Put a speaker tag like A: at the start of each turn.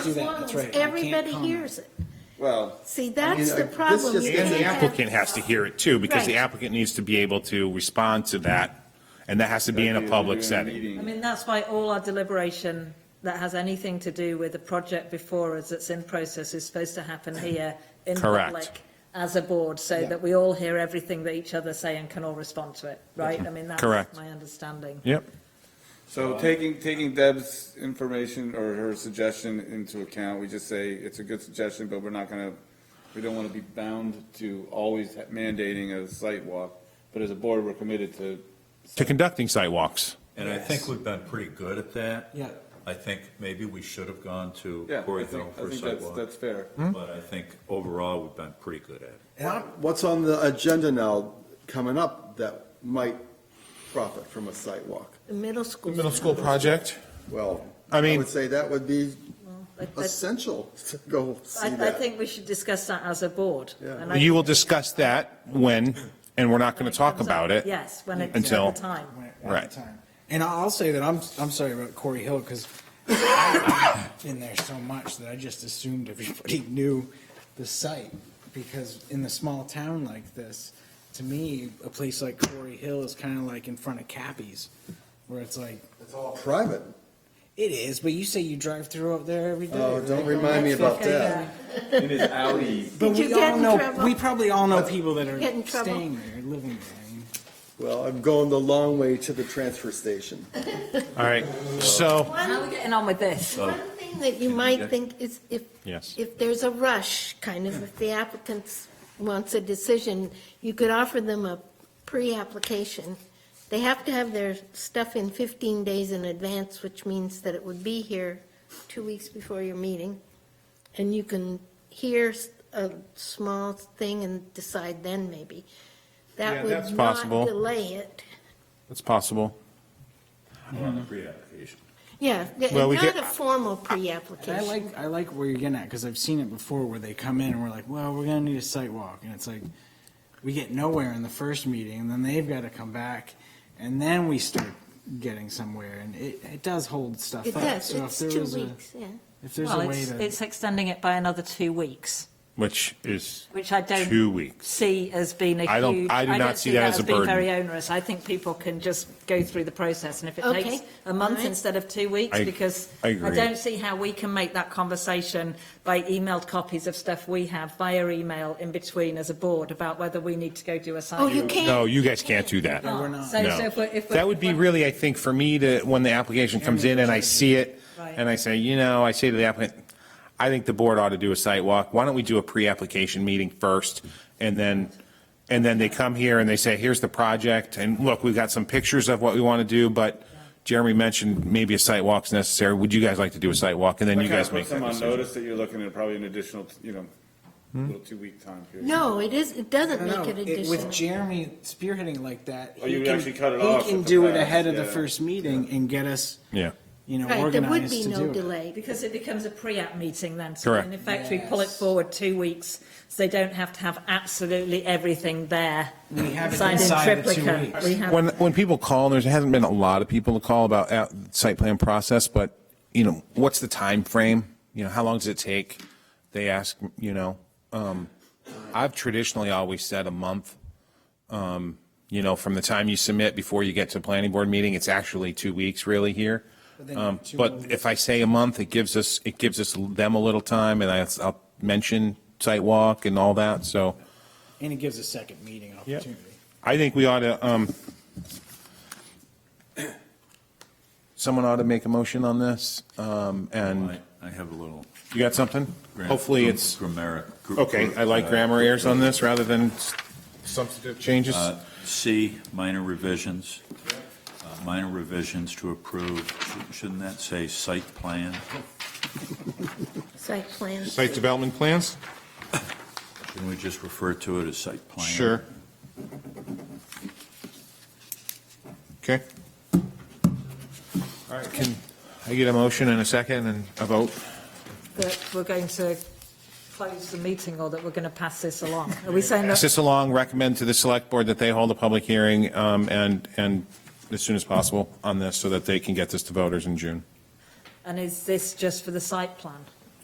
A: do that, that's right. You can't
B: Everybody
A: comment.
B: hears it.
C: Well,
B: See, that's
C: I-
B: the
C: this
B: problem.
C: just
B: You
C: gets
B: can't
C: the
B: have-
D: applicant has to hear it too, because the
B: Right.
D: applicant needs to be able to respond to that, and that has to be in a public setting.
E: I mean, that's why all our deliberation that has anything to do with the project before us that's in process is supposed to happen here in
D: Mm. Correct.
E: public as a board, so
A: Yeah.
E: that we all hear everything that each other say and can all respond to it, right? I mean,
D: Correct.
E: that's my understanding.
D: Yep,
E: uh,
C: So taking, taking Deb's information or her suggestion into account, we just say it's a good suggestion, but we're not gonna, we don't wanna be bound to always mandating a site walk. But as a board, we're committed to,
D: to conducting sidewalks.
F: And I think we've been pretty good at that.
A: Yeah.
F: I think maybe we should have gone to
C: yeah, I
F: Corey Hill
C: think, I
F: for a
C: think that's,
F: sidewalk,
C: that's fair.
D: Hmm?
F: but I think overall, we've been pretty good at it.
G: What's on the agenda now coming up that might profit from a site walk?
B: The Middle school.
D: Middle school project?
G: Well,
D: I
G: I
D: mean-
G: would say that would be
E: I- I-
G: essential to go see
E: I, I
G: that.
E: think we should discuss that as a board.
G: Yeah.
E: and I-
D: You will discuss that when, and we're not
E: when
D: going to talk
E: comes up.
D: about it.
E: Yes, when it's
D: until-
E: at the time.
A: When it- at the
D: Right.
A: time. And I'll say that I'm, I'm sorry about Corey Hill, because I've been there so much that I just assumed everybody knew the site. Because in a small town like this, to me, a place like Corey Hill is kind of like in front of Cappy's, where it's like,
G: It's all private.
A: it is, but you say you drive through up there every day.
G: Oh,
A: right?
G: don't remind me about that.
C: In his alley.
A: But
B: Did you
A: we
B: get
A: all
B: in
A: know,
B: trouble?
A: we probably all know people that
B: Get in
A: are
B: trouble?
A: staying there, living there.
G: Well, I'm going the long way to the transfer station.
D: All right, so,
E: How are we getting on with this?
B: One thing that you might think is if,
D: Yes.
B: if there's a rush, kind of, if the applicant wants a decision, you could offer them a pre-application. They have to have their stuff in 15 days in advance, which means that it would be here two weeks before your meeting. And you can hear a small thing and decide then, maybe.
D: Yeah,
B: That
D: that's
B: would not
D: possible.
B: delay it.
D: it's possible. Hmm.
F: on the pre-application.
B: Yeah,
D: Well, we
B: not
D: get-
B: a formal
A: And I
B: pre-application.
A: like, I like where you're getting at, because I've seen it before where they come in and we're like, well, we're gonna need a site walk, and it's like, we get nowhere in the first meeting, and then they've gotta come back, and then we start getting somewhere, and it, it does hold stuff
B: It
A: up.
B: does,
A: So if
B: it's
A: there
B: two
A: was a-
B: weeks, yeah.
A: If there's a
E: Well,
A: way
E: it's,
A: to,
E: it's extending it by another two weeks,
D: Which is
E: which I don't.
D: two weeks.
E: see as being a
D: I don't-
E: huge.
D: I do not see that as a
E: being
D: burden.
E: Very onerous. I think people can just go through the process, and if it
B: Okay.
E: takes a month
B: All right.
E: instead of two weeks,
D: I-
E: because
D: I agree.
E: don't see how we can make that conversation by emailed copies of stuff we have via email in between as a board about whether we need to go do a site.
B: Oh, you can't.
D: No, you guys can't do that.
A: No, we're not.
E: So, so
D: No.
E: if we're, if we're,
D: That would be really, I think, for me to, when the application comes in and I see it,
E: Right.
D: and I say, you know, I say to the applicant, I think the board ought to do a site walk. Why don't we do a pre-application meeting first? And then, and then they come here and they say, here's the project, and look, we've got some pictures of what we want to do, but Jeremy mentioned maybe a site walk's necessary. Would you guys like to do a site walk? And then you guys make
C: Put
D: that
C: them on
D: decision. Hmm?
C: notice that you're looking at probably an additional, you know, little two-week time period.
B: No, it is, it
A: I
B: doesn't
A: don't
B: make it
A: know, it- with
B: additional.
A: Jeremy spearheading like that.
C: Oh,
A: he
C: you would
A: can-
C: actually cut it
A: He
C: off
A: can
C: at the
A: do it
C: pass,
A: ahead of the
C: yeah.
A: first meeting and get us,
D: Yeah.
A: you know,
B: Right, there would
A: organized
B: be
A: to
B: no
A: do it.
B: delay.
E: because it becomes a pre-app meeting then. So
D: Correct.
E: In effect, we pull it
A: Yes.
E: forward two weeks, so they don't have to have absolutely everything there.
A: We have it
E: signed in
A: inside of two
E: triplicate.
A: weeks.
E: We have
D: When, when people call, and there hasn't been a lot of people to call about uh, site plan process, but, you know, what's the time frame? You know, how long does it take? They ask, you know, um, I've traditionally always said a month. Um, You know, from the time you submit before you get to planning board meeting, it's actually two weeks really here.
A: then
D: Um,
A: two
D: But
A: more
D: if I say a month, it gives us, it gives us them a little time and I- I'll mention site walk and all that, so.
A: And it gives a second meeting opportunity.
D: I think we ought to, um, someone ought to make a motion on this, um, and
F: I, I have a little.
D: you got something?
F: gram-
D: Hopefully
F: gr-
D: it's,
F: Grammar. gr-
D: okay, I like
F: uh,
D: grammar errors on this rather than s- substantive changes.
F: Uh, C, minor revisions, Uh, minor revisions to approve, Shouldn't- shouldn't that say site plan?
B: Site plan.
D: Site development plans?
F: Can we just refer to it as site plan?
D: Sure. Okay. All right, can I get a motion and a second and a vote?
E: that we're going to close the meeting or that we're going to pass this along? Are we saying
D: Pass
E: that?
D: this along, recommend to the select board that they hold a public hearing, um, and, and as soon as possible on this, so that they can get this to voters in June.
E: And is this just for the site plan?